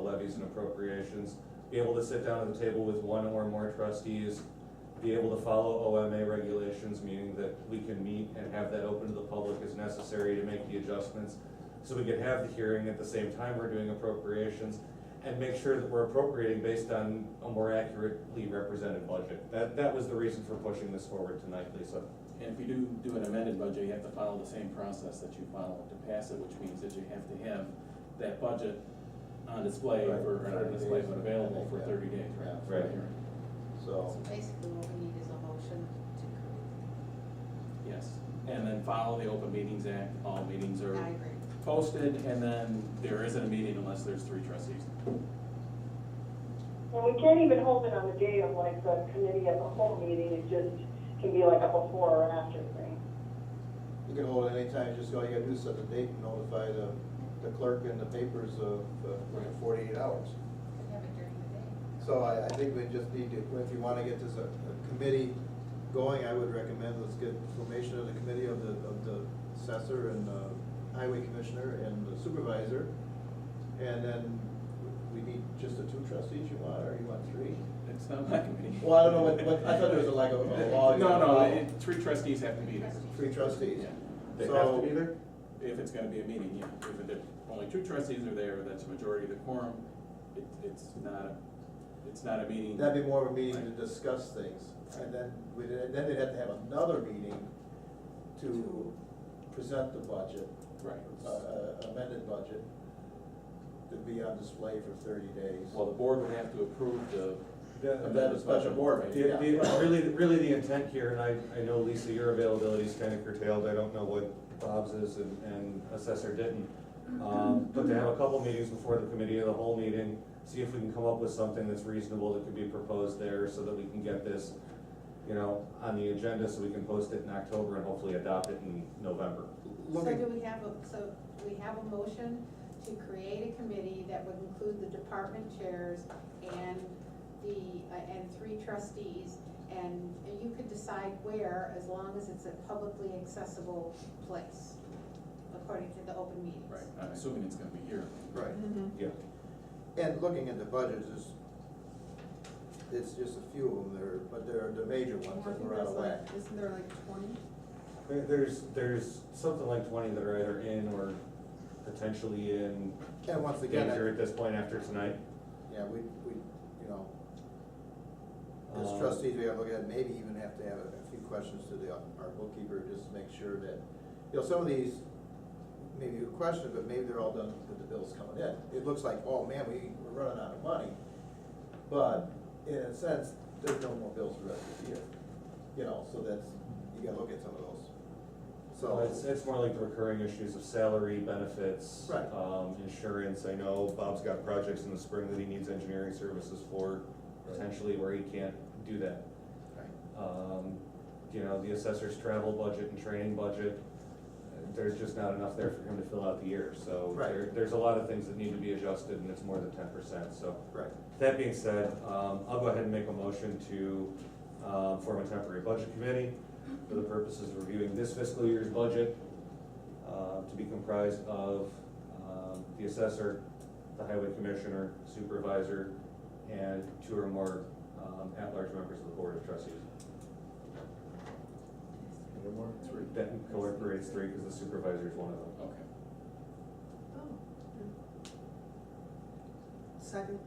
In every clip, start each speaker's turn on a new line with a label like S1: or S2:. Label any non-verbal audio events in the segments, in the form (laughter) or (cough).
S1: levies and appropriations, be able to sit down at the table with one or more trustees, be able to follow OMA regulations, meaning that we can meet and have that open to the public as necessary to make the adjustments. So we can have the hearing at the same time we're doing appropriations and make sure that we're appropriating based on a more accurately represented budget. That, that was the reason for pushing this forward tonight, Lisa.
S2: And if you do do an amended budget, you have to follow the same process that you followed to pass it, which means that you have to have that budget on display
S3: Right,
S2: for,
S3: for
S2: or not on
S3: 30
S2: display,
S3: days.
S2: but available for thirty days, right?
S3: Yeah.
S2: for the
S1: Right.
S2: hearing.
S3: So,
S4: So basically what we need is a motion to create.
S2: Yes, and then follow the Open Meetings Act, all meetings are
S4: I agree.
S2: posted, and then there isn't a meeting unless there's three trustees.
S5: And we can't even hold it on the day of like the committee as a whole meeting, it just can be like a before or after thing.
S3: you can hold it anytime, just all you gotta do is set the date and notify the, the clerk and the papers of, uh,
S2: Right.
S3: forty-eight hours.
S4: We have it during the day.
S3: So I, I think we just need to, if you wanna get this a, a committee going, I would recommend, let's get formation of the committee of the, of the assessor and the highway commissioner and the supervisor. And then we need just the two trustees you want, or you want three?
S2: It's not my committee.
S3: Well, I don't know what- what- I thought there was a, like, a- a law
S2: (laughs)
S3: you
S2: No,
S3: gotta
S2: no,
S3: follow.
S2: it- three trustees have to be there.
S3: Three trustees?
S2: Yeah.
S1: They have
S3: So-
S1: to be there?
S2: If it's gonna be a meeting, yeah, if there, only two trustees are there, that's a majority of the quorum, it, it's not, a it's not a meeting.
S3: That'd be more of a meeting to discuss things, and then, we'd- and then they'd have to have another meeting to present the budget,
S2: Right.
S3: uh, uh, amended budget, to be on display for thirty days.
S2: Well, the board would have to approve the.
S3: And then a special board
S1: The-
S3: meeting.
S1: the- Really, really the intent here, and I, I know Lisa, your availability is kind of curtailed, I don't know what Bob's is and, and Assessor didn't. Um, But to have a couple meetings before the committee of the whole meeting, see if we can come up with something that's reasonable that could be proposed there so that we can get this, you know, on the agenda so we can post it in October and hopefully adopt it in November.
S3: Look
S4: So
S3: at-
S4: do we have, a so we have a motion to create a committee that would include the department chairs and the, uh, and three trustees, and you could decide where, as long as it's a publicly accessible place, according to the open meetings.
S2: Right, I'm assuming it's gonna be here.
S3: Right,
S4: Mhm.
S6: Mm-hmm.
S1: Yeah.
S3: and looking at the budgets, is, it's just a few of them there, but there are the major ones that were out of whack.
S6: Isn't there like twenty?
S1: There- There's, there's something like twenty that are either in or potentially in
S3: And once again,
S1: danger
S3: I-
S1: at this point after tonight.
S3: yeah, we, we, you know, As
S1: Um,
S3: trustees, we gotta look at, it, maybe even have to have a a few questions to the, uh, our bookkeeper, just to make sure that, you know, some of these, maybe a question, but maybe they're all done with the bills coming in. It looks like, oh man, we, we're running out of money, but in a sense, there's no more bills for the rest of the year. You know, so that's, you gotta look at some of those.
S1: So it's,
S3: So,
S1: it's more like the recurring issues of salary, benefits.
S3: Right.
S1: Um, insurance, I know Bob's got projects in the spring that he needs engineering services for, potentially where he can't do that.
S3: right.
S1: Um, you know, the assessor's travel budget and training budget, uh, there's just not enough there for him to fill out the year, so.
S3: Right.
S1: there- There's a lot of things that need to be adjusted, and it's more than ten percent, so.
S3: right,
S1: That being said, um, I'll go ahead and make a motion to, um, form a temporary budget committee for the purposes of reviewing this fiscal year's budget, uh, to be comprised of, um, the assessor, the highway commissioner, supervisor, and two or more, um, at-large members of the board of trustees.
S3: any more?
S2: Three.
S1: That incorporates three, because the supervisor is one of them.
S2: Okay.
S6: Oh. Second.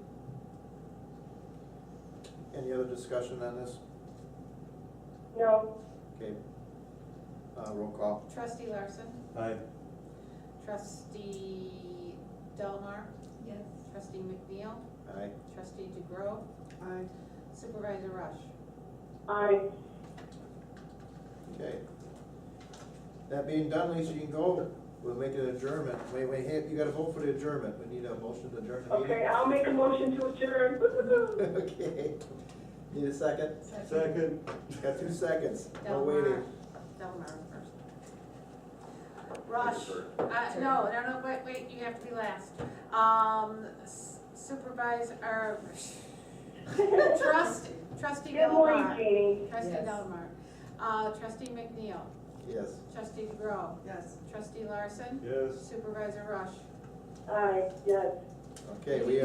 S3: Any other discussion on this?
S5: No,
S3: Okay. Uh, roll call.
S4: Trustee Larson,
S1: Aye.
S4: trustee Delmar,
S6: Yes.
S4: trustee McNeil,
S3: Aye.
S4: trustee DeGrove,
S6: Aye.
S4: supervisor Rush.
S5: I,
S3: Okay. That being done, Lisa, you can go, we'll make an adjournment, wait, wait, hey, you gotta vote for the adjournment, we need a motion to adjourn the
S5: okay,
S3: meeting.
S5: I'll make a motion to adjourn. (laughs) Woo-hoo-hoo.
S3: (laughs) Okay, need a second? Got two seconds, no
S4: Delmar,
S3: waiting.
S4: Delmar first. Rush, uh, no, no, no, wait, wait, you have to be last. Um, s- supervisor, er, (laughs) trust, trustee
S5: Good morning,
S4: Delmar.
S5: Jeannie.
S4: Trustee
S6: Yes.
S4: Delmar, uh, trustee McNeil,
S3: Yes,
S4: trustee DeGrove,
S6: Yes.
S4: trustee Larson,
S1: Yes.
S4: supervisor Rush.
S5: Aye, yes.
S3: okay, we